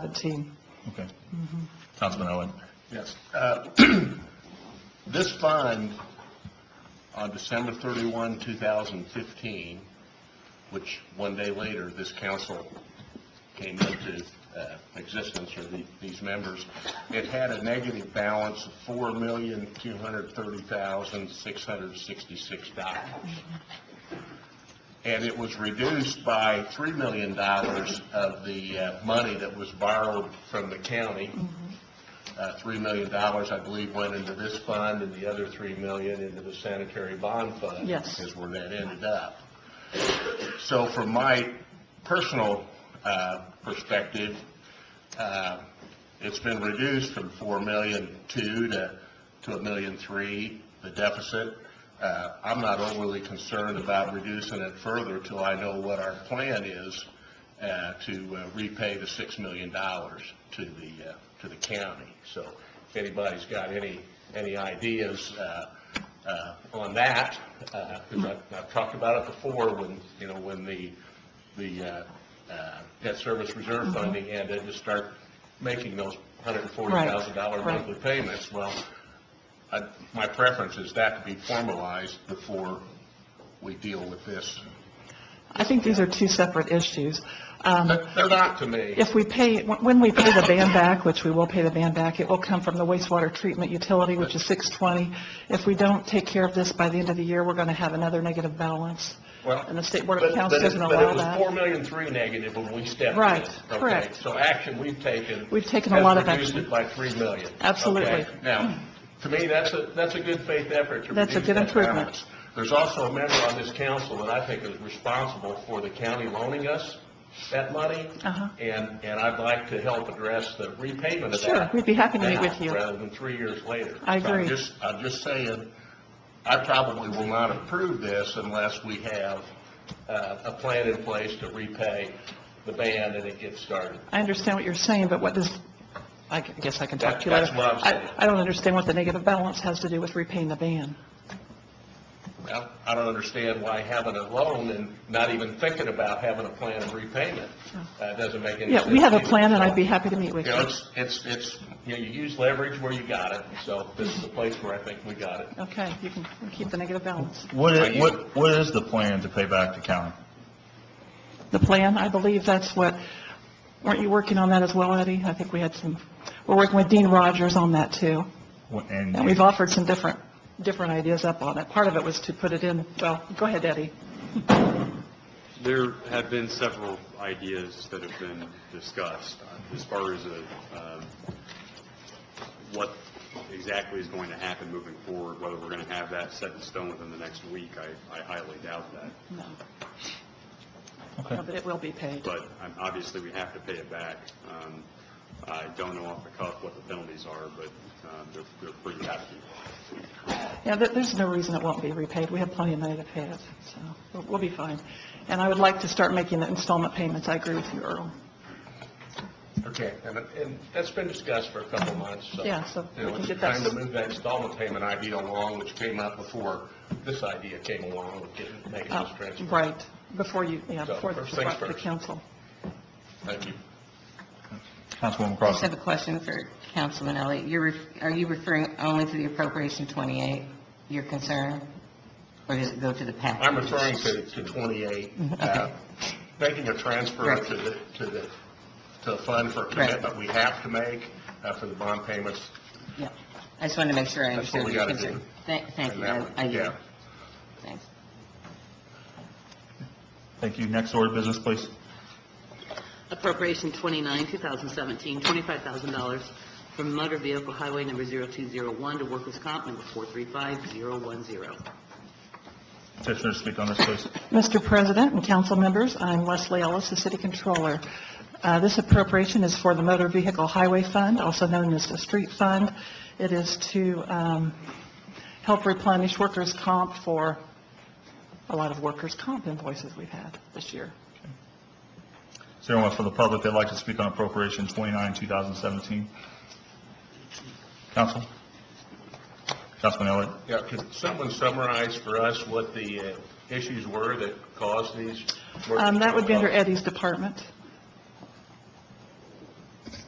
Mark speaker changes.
Speaker 1: 17.
Speaker 2: Okay. Councilman Owen?
Speaker 3: Yes. Uh, This fund, on December 31, 2015, which one day later, this council came into uh, existence, or the- these members, it had a negative balance of $4,230,666 and it was reduced by $3 million of the uh, money that was borrowed from the county. Uh, $3 million, I believe, went into this fund, and the other $3 million into the sanitary bond fund.
Speaker 1: Yes.
Speaker 3: Is where that ended up. So from my personal uh, perspective, uh, it's been reduced from four million two to, to a million three, the deficit. Uh, I'm not overly concerned about reducing it further till I know what our plan is uh, to uh, repay the six million dollars to the, uh, to the county. So if anybody's got any, any ideas uh, uh, on that, because I've, I've talked about it before when, you know, when the, the uh, uh, debt service reserve
Speaker 1: Mm-hmm.
Speaker 3: funding ended, to start making those $140,000
Speaker 1: Right, right.
Speaker 3: monthly payments. Well, I- my preference is that to be formalized before we deal with this.
Speaker 1: I think these are two separate issues. Um,
Speaker 3: But They're not to me.
Speaker 1: If we pay, when we pay the band back, which we will pay the band back, it will come from the wastewater treatment utility, which is 620. If we don't take care of this by the end of the year, we're going to have another negative balance.
Speaker 3: Well,
Speaker 1: And the State Board of
Speaker 3: But
Speaker 1: Accounts
Speaker 3: but it-
Speaker 1: doesn't allow
Speaker 3: But it was
Speaker 1: that.
Speaker 3: 4 million three negative when we stepped in.
Speaker 1: Right,
Speaker 3: okay?
Speaker 1: correct.
Speaker 3: So action we've taken.
Speaker 1: We've taken a lot of
Speaker 3: has reduced
Speaker 1: action.
Speaker 3: it by 3 million.
Speaker 1: Absolutely.
Speaker 3: okay? Now, to me, that's a, that's a good faith effort to
Speaker 1: That's a
Speaker 3: reduce
Speaker 1: good
Speaker 3: that
Speaker 1: improvement.
Speaker 3: balance. There's also a member on this council that I think is responsible for the county loaning us that money.
Speaker 1: Uh-huh.
Speaker 3: And, and I'd like to help address the repayment of that.
Speaker 1: Sure, we'd be happy to meet
Speaker 3: now,
Speaker 1: with you.
Speaker 3: Rather than three years later.
Speaker 1: I
Speaker 3: So I'm
Speaker 1: agree.
Speaker 3: just- I'm just saying, I probably will not approve this unless we have uh, a plan in place to repay the band and it gets started.
Speaker 1: I understand what you're saying, but what does, I guess I can talk to you
Speaker 3: That-
Speaker 1: later.
Speaker 3: that's what I'm saying.
Speaker 1: I I don't understand what the negative balance has to do with repaying the ban.
Speaker 3: Now, I don't understand why having a loan and not even thinking about having a plan of repayment uh, doesn't make any sense.
Speaker 1: Yeah, we have a
Speaker 3: either.
Speaker 1: plan, and I'd be happy to meet with
Speaker 3: You know,
Speaker 1: you.
Speaker 3: it's, it's, it's, you know, you use leverage where you got it, so this is the place where I think we got it.
Speaker 1: Okay, you can keep the negative balance.
Speaker 2: What,
Speaker 3: Thank
Speaker 2: i-
Speaker 3: you.
Speaker 2: what, what is the plan to pay back the county?
Speaker 1: the plan. I believe that's what, weren't you working on that as well, Eddie? I think we had some, we're working with Dean Rogers on that, too.
Speaker 2: What- And
Speaker 1: And we've offered some different, different ideas up on it. Part of it was to put it in, well, go ahead, Eddie.
Speaker 4: There have been several ideas that have been discussed uh, as far as a, um, what exactly is going to happen moving forward, whether we're going to have that set in stone within the next week, I I highly doubt that.
Speaker 1: No,
Speaker 2: Okay.
Speaker 1: no, but it will be paid.
Speaker 4: But um, obviously, we have to pay it back. Um, I don't know off the cuff what the penalties are, but um, they're they're pretty hefty.
Speaker 1: Yeah, there- there's no reason it won't be repaid. We have plenty of money to pay it, so we'll- we'll be fine. And I would like to start making the installment payments. I agree with you, Earl.
Speaker 3: Okay, and, and that's been discussed for a couple of months, so.
Speaker 1: Yeah, so
Speaker 3: You know,
Speaker 1: we can
Speaker 3: it's
Speaker 1: get that-
Speaker 3: time to move that installment payment idea along, which came up before this idea came along with getting, making
Speaker 1: Uh,
Speaker 3: this transfer.
Speaker 1: Right, before you, yeah,
Speaker 3: So,
Speaker 1: before the
Speaker 3: first things
Speaker 1: before the
Speaker 3: first.
Speaker 1: council.
Speaker 3: Thank you.
Speaker 2: Councilwoman
Speaker 5: I just have
Speaker 2: Crossen?
Speaker 5: a question for Councilman Elliott. You're, ref- are you referring only to the appropriation 28, your concern? Or does it go to the package?
Speaker 3: I'm referring to, to 28,
Speaker 1: Mm-hmm,
Speaker 3: uh, making a transfer
Speaker 5: Right.
Speaker 3: to the, to the, to the fund for a commitment we have to make uh, for the bond payments.
Speaker 5: Yeah. I just wanted to make sure I
Speaker 3: That's what
Speaker 5: understood
Speaker 3: we
Speaker 5: your
Speaker 3: gotta do.
Speaker 5: concern. Thank, thank
Speaker 3: and
Speaker 5: you.
Speaker 3: that
Speaker 5: I,
Speaker 3: one.
Speaker 5: I,
Speaker 3: Yeah.
Speaker 5: yield. thanks.
Speaker 2: Thank you. Next order of business, please.
Speaker 6: Appropriation 29, 2017, $25,000 from motor vehicle highway number 0201 to workers' comp number 435010.
Speaker 2: Petitioner to speak on this, please.
Speaker 1: Mr. President and council members, I'm Leslie Ellis, the city controller. Uh, This appropriation is for the Motor Vehicle Highway Fund, also known as the Street Fund. It is to um, help replenish workers' comp for a lot of workers' comp invoices we've had this year.
Speaker 2: Is there anyone from the public that'd like to speak on appropriation 29, 2017? Council? Councilman Elliott?
Speaker 3: Yeah, could someone summarize for us what the uh, issues were that caused these?
Speaker 1: Um, That would be under Eddie's department.